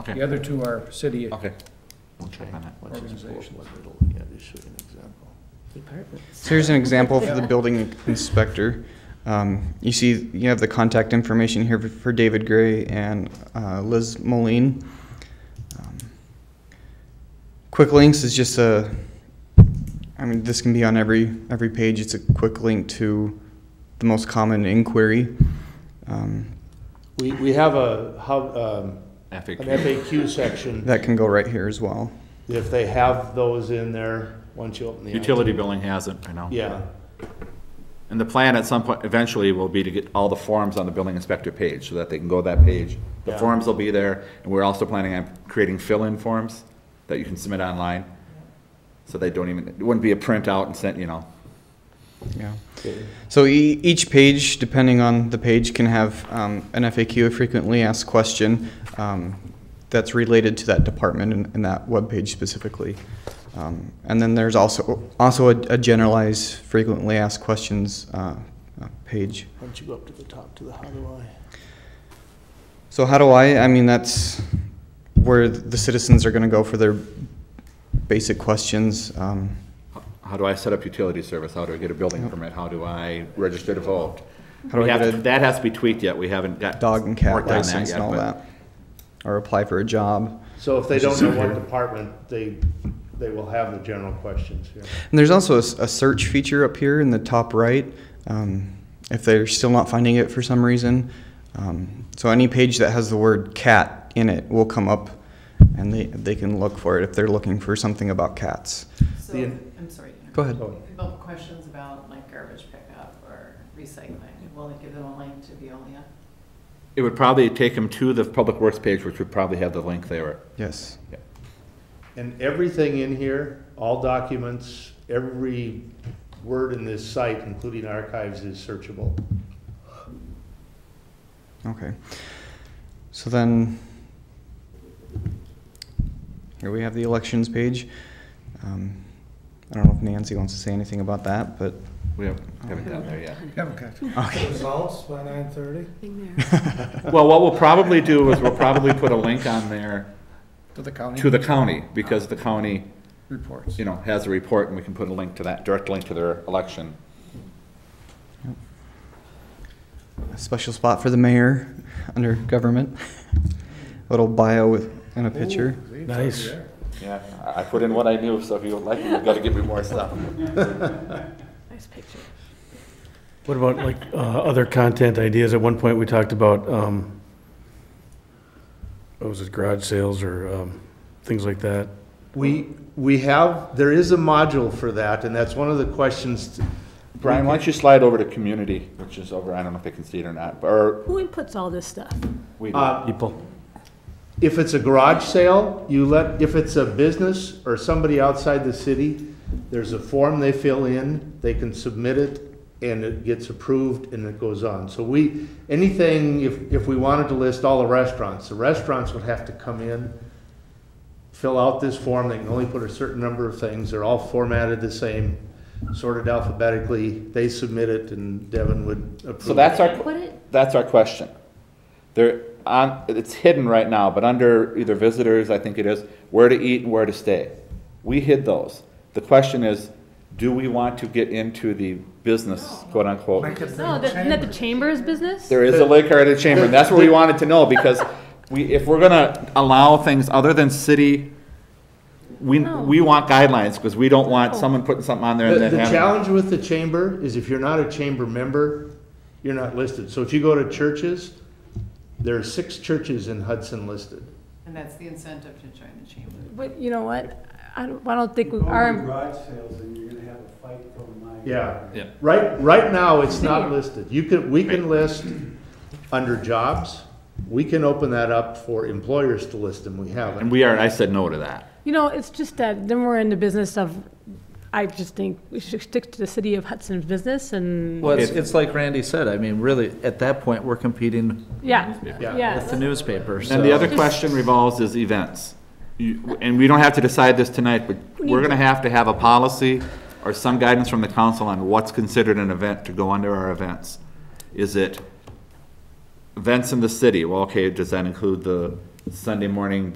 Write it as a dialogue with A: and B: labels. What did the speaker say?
A: The other two are city
B: Okay.
C: We'll check on that.
D: Let's just pull up
A: Organizations.
D: what it'll- yeah, just show you an example.
E: So here's an example for the building inspector. Um, you see, you have the contact information here for David Gray and uh, Liz Moline. Um, Quick links is just a, I mean, this can be on every every page. It's a quick link to the most common inquiry. Um,
F: We, we have a, hub, um, an
B: FAQ.
F: FAQ section.
E: that can go right here as well.
F: If they have those in there, once you open the. app-
B: Utility billing hasn't, I know.
F: Yeah,
B: And the plan at some point, eventually, will be to get all the forms on the building inspector page, so that they can go to that page. The
F: Yeah.
B: forms will be there, and we're also planning on creating fill-in forms that you can submit online. So they don't even, it wouldn't be a printout and sent, you know.
E: Yeah.
F: Okay.
E: So e- each page, depending on the page, can have um, an FAQ, a frequently asked question, um, that's related to that department and, and that webpage specifically. Um, and then there's also also a, a generalized frequently asked questions uh, uh, page.
F: once you go up to the top to the how do I.
E: So how do I? I mean, that's where the citizens are going to go for their basic questions. Um,
B: How do I set up utility service? How do I get a building permit? How do I register to vote?
E: How do
B: We
E: I
B: have
E: get
B: to-
E: a-
B: That has to be tweaked yet, we haven't got.
E: dog and cat
B: worked on that
E: license
B: yet,
E: and all
B: but-
E: that, or apply for a job.
F: So if they don't know what department, they, they will have the general questions here.
E: And there's also a, s- a search feature up here in the top right um, if they're still not finding it for some reason. Um, so any page that has the word cat in it will come up and they, they can look for it if they're looking for something about cats.
G: So,
F: The-
G: I'm sorry.
E: Go ahead.
G: About questions about like garbage pickup or recycling, will it give them a link to Veolia?
B: It would probably take them to the public works page, which would probably have the link there.
E: Yes.
F: And everything in here, all documents, every word in this site, including archives, is searchable.
E: Okay. So then, here we have the elections page. Um, I don't know if Nancy wants to say anything about that, but
B: We haven't haven't gotten there yet.
H: Results by nine thirty?
B: Well, what we'll probably do is we'll probably put a link on there
A: to the county
B: to the county, because the county,
A: reports.
B: you know, has a report, and we can put a link to that, direct link to their election.
E: a special spot for the mayor under government. Little bio with, and a picture.
D: Nice.
B: Yeah, I- I put in what I knew, so if you would like, it, you've got to give me more stuff.
G: Nice picture.
D: What about like uh, other content ideas? At one point, we talked about, um, what was it, garage sales or um, things like that?
F: We, we have, there is a module for that, and that's one of the questions.
B: Brian, why don't you slide over to community, which is over, I don't know if they can see it or not, or
I: Who inputs all this stuff?
B: we,
F: Uh,
D: People?
F: If it's a garage sale, you let, if it's a business or somebody outside the city, there's a form they fill in, they can submit it, and it gets approved, and it goes on. So we, anything, if, if we wanted to list all the restaurants, the restaurants would have to come in, fill out this form, they can only put a certain number of things, they're all formatted the same, sorted alphabetically, they submit it, and Devin would approve.
B: so that's our,
I: Put it,
B: that's our question. There, on, it's hidden right now, but under either visitors, I think it is, where to eat and where to stay. We hid those. The question is, do we want to get into the business, quote unquote?
I: no, that- isn't that the chamber's business?
B: There is a liquor at a chamber, and that's what we wanted to know, because we, if we're gonna allow things other than city, we, we want guidelines, because we don't want someone putting something on there
F: The,
B: and then
F: the
B: having.
F: challenge with the chamber is if you're not a chamber member, you're not listed. So if you go to churches, there are six churches in Hudson listed.
G: And that's the incentive to join the chamber.
I: But you know what? I don't, I don't think we
H: Go to
I: are,
H: garage sales and you're gonna have a fight from my.
F: Yeah.
B: Yeah.
F: Right, right now, it's not listed. You can, we can list under jobs. We can open that up for employers to list them. We
B: And
F: haven't.
B: we are, I said no to that.
I: you know, it's just that, then we're in the business of, I just think we should stick to the city of Hudson's business and,
B: Well,
C: Well,
B: it's-
C: it's, like Randy said, I mean, really, at that point, we're competing
I: yeah,
F: Yeah.
I: yeah.
C: with the newspaper,
B: And the other question revolves is events. You- And we don't have to decide this tonight, but we're gonna have to have a policy or some guidance from the council on what's considered an event to go under our events. Is it events in the city? Well, okay, does that include the Sunday morning